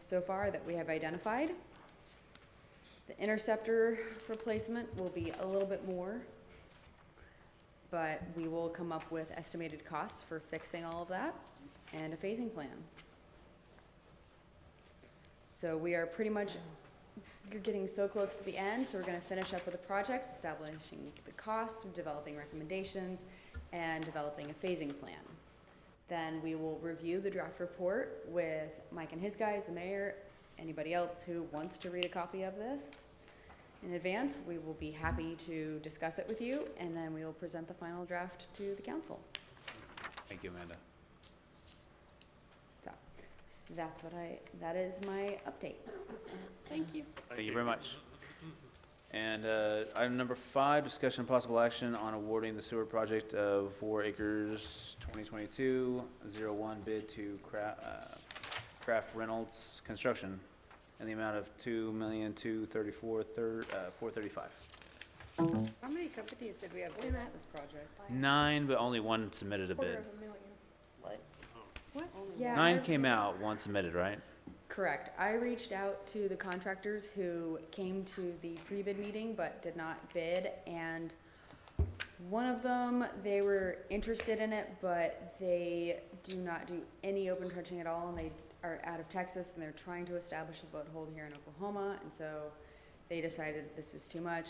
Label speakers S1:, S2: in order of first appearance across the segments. S1: so far that we have identified. The interceptor replacement will be a little bit more, but we will come up with estimated costs for fixing all of that and a phasing plan. So we are pretty much, you're getting so close to the end, so we're gonna finish up with the projects, establishing the costs, developing recommendations, and developing a phasing plan. Then we will review the draft report with Mike and his guys, the mayor, anybody else who wants to read a copy of this in advance. We will be happy to discuss it with you, and then we will present the final draft to the council.
S2: Thank you, Amanda.
S1: So, that's what I, that is my update.
S3: Thank you.
S2: Thank you very much. And uh, item number five, discussion and possible action on awarding the sewer project of four acres 2022-01 bid to Cra- uh, Kraft Reynolds Construction in the amount of two million two thirty-four uh, four thirty-five.
S4: How many companies did we have in at this project?
S2: Nine, but only one submitted a bid.
S4: What?
S1: Yeah,
S2: Nine came out, one submitted, right?
S1: Correct. I reached out to the contractors who came to the pre-bid meeting but did not bid, and one of them, they were interested in it, but they do not do any open trenching at all, and they are out of Texas, and they're trying to establish a foothold here in Oklahoma, and so they decided this was too much.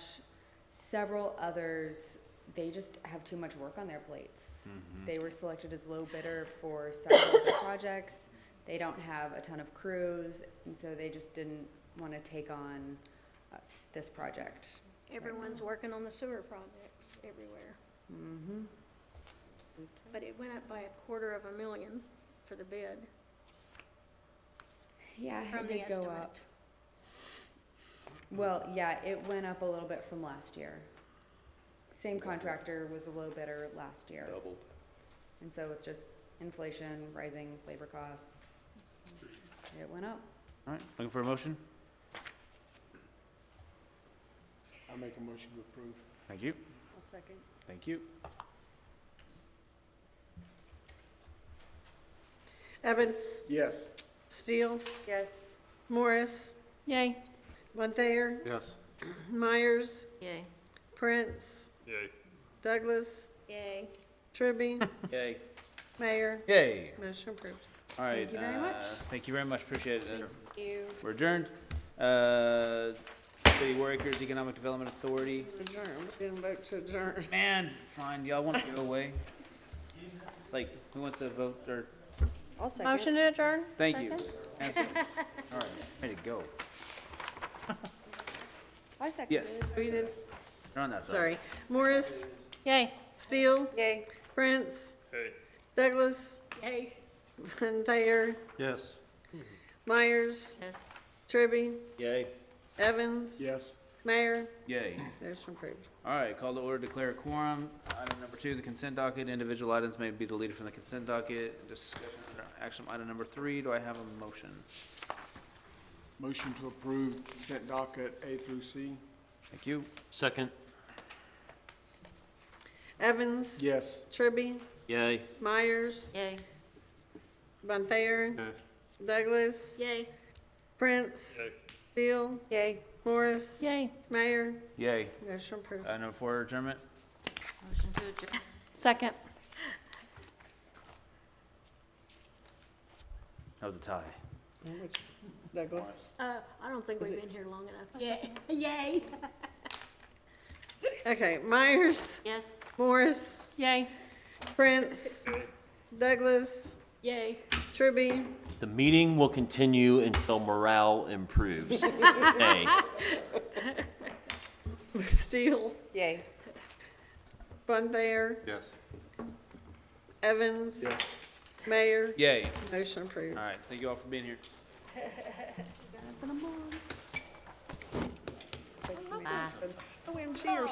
S1: Several others, they just have too much work on their plates. They were selected as low bidder for several of the projects. They don't have a ton of crews, and so they just didn't want to take on uh, this project.
S3: Everyone's working on the sewer projects everywhere,
S1: Mm-hmm.
S3: but it went up by a quarter of a million for the bid
S1: Yeah,
S3: from
S1: it
S3: the
S1: did go up.
S3: estimate.
S1: Well, yeah, it went up a little bit from last year. Same contractor was a low bidder last year,
S2: Double.
S1: and so with just inflation, rising labor costs, it went up.
S2: All right, looking for a motion?
S5: I make a motion to approve.
S2: Thank you.
S4: I'll second.
S2: Thank you.
S6: Evans,
S5: Yes.
S6: Steele,
S4: Yes.
S6: Morris,
S3: Yay.
S6: Von Thayer,
S5: Yes.
S6: Myers,
S4: Yay.
S6: Prince, Douglas,
S3: Yay.
S6: Tribby,
S2: Yay.
S6: Mayor,
S2: Yay.
S6: motion approved.
S2: All right.
S1: Thank you very much.
S2: uh, Thank you very much, appreciate it. Uh,
S6: You.
S2: We're adjourned. Uh, City Workers Economic Development Authority.
S6: Adjourn, we didn't vote to adjourn.
S2: Man, fine, y'all want to go away? Like, who wants to vote, or,
S4: I'll second.
S3: to adjourn?
S2: thank you. Hands up. All right, ready to go.
S4: I
S2: Yes,
S4: seconded.
S6: We did,
S2: you're on that side.
S6: sorry. Morris,
S3: Yay.
S6: Steele,
S4: Yay.
S6: Prince, Douglas,
S3: Yay.
S6: Von Thayer,
S5: Yes.
S6: Myers,
S4: Yes.
S6: Tribby,
S2: Yay.
S6: Evans,
S5: Yes.
S6: Mayor,
S2: Yay.
S6: motion approved.
S2: All right, call to order, declare a quorum. Item number two, the consent docket. Individual items may be deleted from the consent docket. Discussion under action item number three. Do I have a motion?
S5: Motion to approve consent docket A through C.
S2: Thank you.
S7: Second.
S6: Evans,
S5: Yes.
S6: Tribby,
S7: Yay.
S6: Myers,
S4: Yay.
S6: Von Thayer, Douglas,
S3: Yay.
S6: Prince, Steele,
S4: Yay.
S6: Morris,
S3: Yay.
S6: Mayor,
S2: Yay.
S6: motion approved.
S2: Item number four, adjournment.
S4: Motion to adjourn.
S3: Second.
S2: That was a tie.
S6: Douglas.
S3: Uh, I don't think
S6: Was
S3: we've
S6: it-
S3: been here long enough. Yay.
S6: Okay, Myers,
S4: Yes.
S6: Morris,
S3: Yay.
S6: Prince, Douglas,
S3: Yay.
S6: Tribby,
S7: The meeting will continue until morale improves. Yay.
S6: Steele,
S4: Yay.
S6: Von Thayer,
S5: Yes.
S6: Evans,
S5: Yes.
S6: Mayor,
S2: Yay.
S6: motion approved.
S2: All right, thank you all for being here.
S4: Bye.
S6: OMG, or